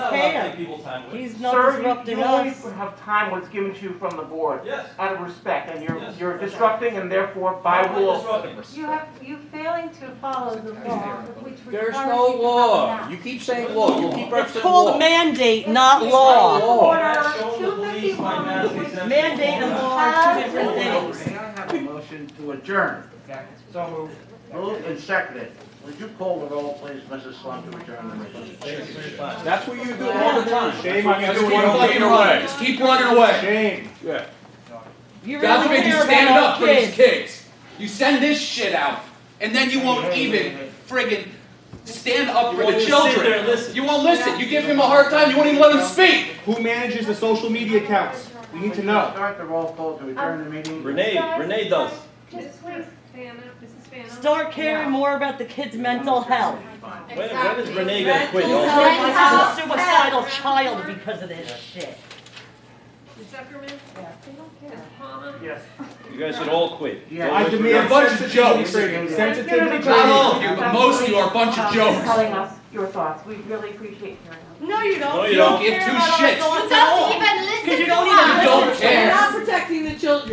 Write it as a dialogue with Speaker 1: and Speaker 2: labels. Speaker 1: there.
Speaker 2: Take people's time with.
Speaker 1: He's not
Speaker 3: Sir, you-
Speaker 1: disrupting
Speaker 3: you always
Speaker 1: us.
Speaker 3: have time when it's given to you from the board,
Speaker 2: Yes.
Speaker 3: out of respect, and you're,
Speaker 2: Yes,
Speaker 3: you're
Speaker 2: that's right.
Speaker 3: disrupting and therefore by
Speaker 2: Why
Speaker 3: rule.
Speaker 2: disrupt me?
Speaker 4: You have, you failing to follow the law, which requires you to
Speaker 5: There's
Speaker 4: come
Speaker 5: no law.
Speaker 4: back.
Speaker 5: You keep saying law. You keep
Speaker 1: It's
Speaker 5: referencing
Speaker 1: called a
Speaker 5: law.
Speaker 1: mandate,
Speaker 4: It's
Speaker 1: not
Speaker 4: it's
Speaker 1: law.
Speaker 4: Law.
Speaker 2: That's shown the police by mass
Speaker 4: Order
Speaker 2: exemption.
Speaker 1: Mandate and law are two different things.
Speaker 6: May I have a motion to adjourn?
Speaker 2: So moved.
Speaker 6: Moved and seconded. Would you call the roll, please, Mrs. Slum, to adjourn the meeting?
Speaker 2: Thank you for your time.
Speaker 5: That's what you do all the time.
Speaker 7: Shame
Speaker 5: That's
Speaker 7: on you
Speaker 5: what
Speaker 7: doing
Speaker 5: keep
Speaker 7: all
Speaker 5: fucking
Speaker 7: the
Speaker 5: running.
Speaker 7: time.
Speaker 5: Just keep running away.
Speaker 7: Shame.
Speaker 5: Yeah.
Speaker 1: You
Speaker 8: God's
Speaker 1: really
Speaker 8: made you
Speaker 1: care
Speaker 8: stand
Speaker 1: about
Speaker 8: up
Speaker 1: our
Speaker 8: for these
Speaker 1: kids.
Speaker 8: kids. You send this shit out, and then you won't
Speaker 6: Hey, hey,
Speaker 8: even
Speaker 6: hey,
Speaker 8: friggin' stand up
Speaker 2: You
Speaker 8: for
Speaker 2: won't even
Speaker 8: the
Speaker 2: sit there and
Speaker 8: children.
Speaker 2: listen.
Speaker 8: You won't listen. You give him a hard time. You won't even let him speak.
Speaker 7: Who manages the social media accounts? We need to know.
Speaker 6: Start the roll call to adjourn the meeting.
Speaker 2: Renee, Renee does.
Speaker 4: Mrs. Fana,
Speaker 1: Start caring more about the kids' mental health.
Speaker 2: When, when is Renee gonna quit?
Speaker 1: This
Speaker 2: y'all?
Speaker 4: health.
Speaker 1: is a suicidal child because of this shit.
Speaker 9: Zuckerman,
Speaker 4: They don't care.
Speaker 9: Palmer,
Speaker 3: Yes.
Speaker 2: You guys should all quit.
Speaker 6: Yeah.
Speaker 7: I
Speaker 8: You're a
Speaker 7: demand
Speaker 8: bunch of
Speaker 7: sensitivity
Speaker 8: jokes.
Speaker 7: training. Sensitivity
Speaker 8: Not all
Speaker 7: training.
Speaker 8: of you, but most of you are a bunch of
Speaker 3: Joe.
Speaker 8: jokers.
Speaker 3: Telling us your thoughts, we really appreciate hearing them.
Speaker 1: No, you don't.
Speaker 2: No, you don't.
Speaker 8: Give
Speaker 1: care
Speaker 8: two
Speaker 1: about our
Speaker 8: shits.
Speaker 1: thoughts
Speaker 9: You
Speaker 1: at all.
Speaker 9: don't even listen
Speaker 1: Because you
Speaker 9: to
Speaker 1: don't
Speaker 9: us.
Speaker 1: even
Speaker 8: You don't
Speaker 1: listen to
Speaker 8: care.
Speaker 1: us.